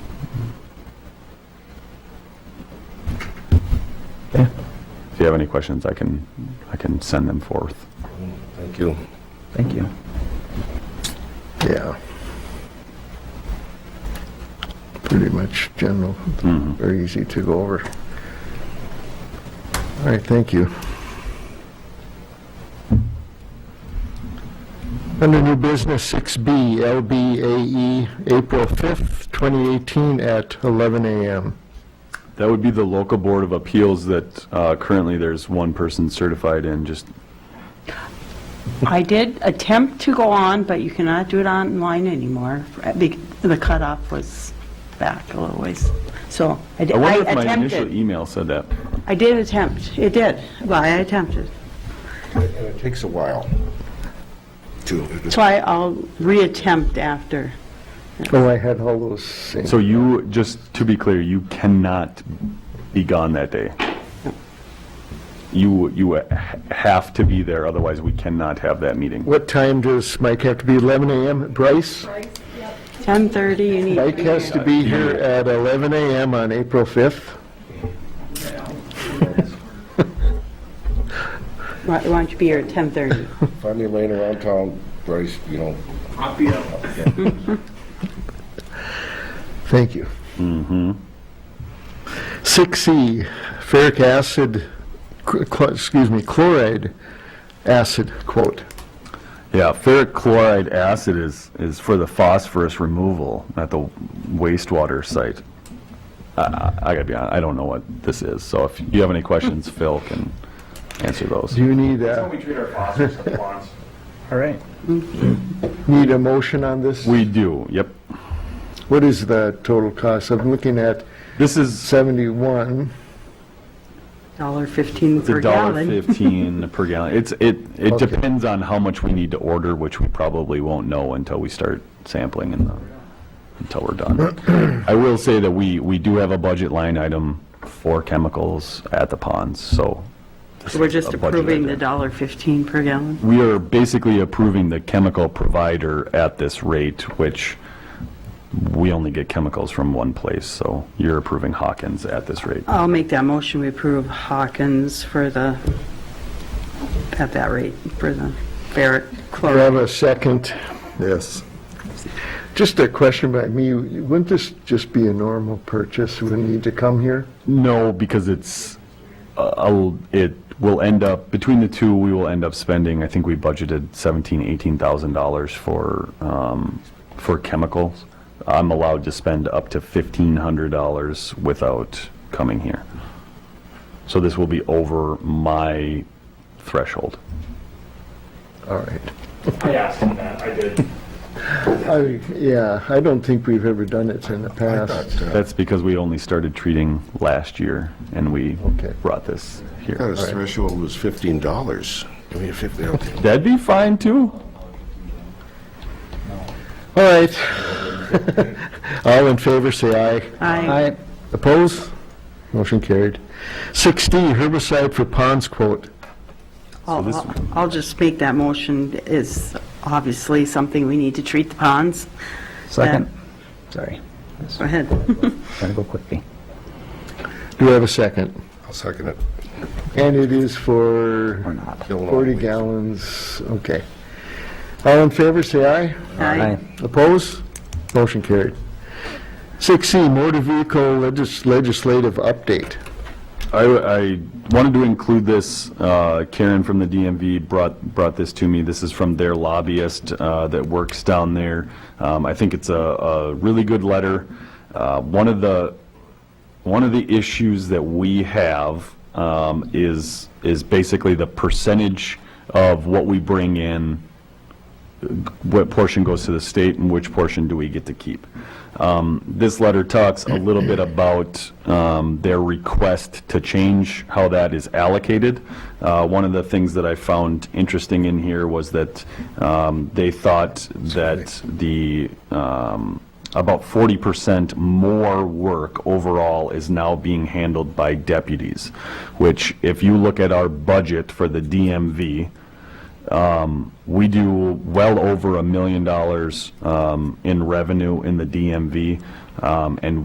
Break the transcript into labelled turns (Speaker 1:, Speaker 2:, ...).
Speaker 1: you have any questions, I can, I can send them forth.
Speaker 2: Thank you.
Speaker 3: Thank you.
Speaker 4: Yeah. Pretty much general, very easy to go over. All right, thank you. Under new business 6B, LBAE, E, April 5th, 2018 at 11 a.m.
Speaker 1: That would be the local board of appeals that uh, currently there's one person certified in, just,
Speaker 5: I did attempt to go on, but you cannot do it online anymore. Be- The cutoff was back a little ways. So I did-
Speaker 1: I
Speaker 5: I
Speaker 1: wonder if my initial e-
Speaker 5: attempted.
Speaker 1: email said that.
Speaker 5: I did attempt. It did. Well, I attempted.
Speaker 2: And it takes a while to,
Speaker 5: So I- I'll reattempt after.
Speaker 4: Oh, I had all those same.
Speaker 1: So you, just to be clear, you cannot be gone that day. You, you ha- have to be there, otherwise we cannot have that meeting.
Speaker 4: What time does Mike have to be, 11 a.m.? Bryce?
Speaker 5: 10:30, you need to
Speaker 4: Mike
Speaker 5: be
Speaker 4: has
Speaker 5: here.
Speaker 4: to be here at 11 a.m. on April 5th.
Speaker 5: Why why don't you be here at 10:30?
Speaker 2: find me laying around town, Bryce, you know,
Speaker 4: Thank you. Mm-hmm. 6C, ferric acid, cl- cl- excuse me, chloride acid quote.
Speaker 1: Yeah, ferric chloride acid is, is for the phosphorus removal at the wastewater site. I, I I gotta be honest, I don't know what this is, so if you have any questions, Phil can answer those.
Speaker 4: Do you need uh, a,
Speaker 6: we treat our phosphorus at once.
Speaker 3: All right.
Speaker 4: need a motion on this?
Speaker 1: We do, yep.
Speaker 4: What is the total cost? I'm looking at
Speaker 1: This is
Speaker 4: 71.
Speaker 5: Dollar fifteen
Speaker 1: the
Speaker 5: per
Speaker 1: dollar
Speaker 5: gallon.
Speaker 1: fifteen per gallon. It's, it, it
Speaker 4: Okay.
Speaker 1: depends on how much we need to order, which we probably won't know until we start sampling and, uh, until we're done. I will say that we, we do have a budget line item for chemicals at the ponds, so. this
Speaker 5: So We're
Speaker 1: is
Speaker 5: just
Speaker 1: a budget
Speaker 5: approving the
Speaker 1: item.
Speaker 5: dollar fifteen per gallon.
Speaker 1: We are basically approving the chemical provider at this rate, which we only get chemicals from one place, so you're approving Hawkins at this rate.
Speaker 5: I'll make that motion. We approve Hawkins for the, at that rate, for the ferric
Speaker 4: Do I
Speaker 5: chloride.
Speaker 4: have a second?
Speaker 2: yes.
Speaker 4: Just a question by me, wouldn't this just be a normal purchase? Wouldn't need to come here?
Speaker 1: No, because it's, uh, I'll- it will end up, between the two, we will end up spending, I think we budgeted seventeen, eighteen thousand dollars for, um, for chemicals. I'm allowed to spend up to fifteen hundred dollars without coming here. So this will be over my threshold.
Speaker 4: All right.
Speaker 6: I asked him that, I did.
Speaker 4: I- Yeah, I don't think we've ever done it in the past.
Speaker 2: That
Speaker 1: That's because we only started treating last year, and we
Speaker 4: Okay.
Speaker 1: brought this here.
Speaker 2: his threshold was fifteen dollars. I mean, fifty, okay.
Speaker 1: That'd be fine, too.
Speaker 4: All right. All in favor, say aye.
Speaker 5: Aye.
Speaker 4: Opposed? Motion carried. 6D, herbicide for ponds quote.
Speaker 1: this-
Speaker 5: I'll- I'll I'll just make that motion is obviously something we need to treat the ponds.
Speaker 3: Second. Sorry.
Speaker 5: Go ahead.
Speaker 3: Gotta go quickly.
Speaker 4: Do we have a second?
Speaker 2: I'll second it.
Speaker 4: And it is
Speaker 3: Or
Speaker 4: for
Speaker 3: not.
Speaker 2: Bill and I
Speaker 4: 40
Speaker 2: will-
Speaker 4: gallons, okay. All in favor, say aye.
Speaker 5: Aye.
Speaker 4: Opposed? Motion carried. 6C, motor vehicle legis- legislative update.
Speaker 1: I, I wanted to include this, uh, Karen from the DMV brought, brought this to me. This is from their lobbyist uh, that works down there. Um, I think it's a, a really good letter. Uh, One of the, one of the issues that we have um, is, is basically the percentage of what we bring in what portion goes to the state and which portion do we get to keep. Um, This letter talks a little bit about um, their request to change how that is allocated. Uh, One of the things that I found interesting in here was that um, they thought that the, um, about 40% more work overall is now being handled by deputies, which if you look at our budget for the DMV, we do well over a million dollars um, in revenue in the DMV, um, and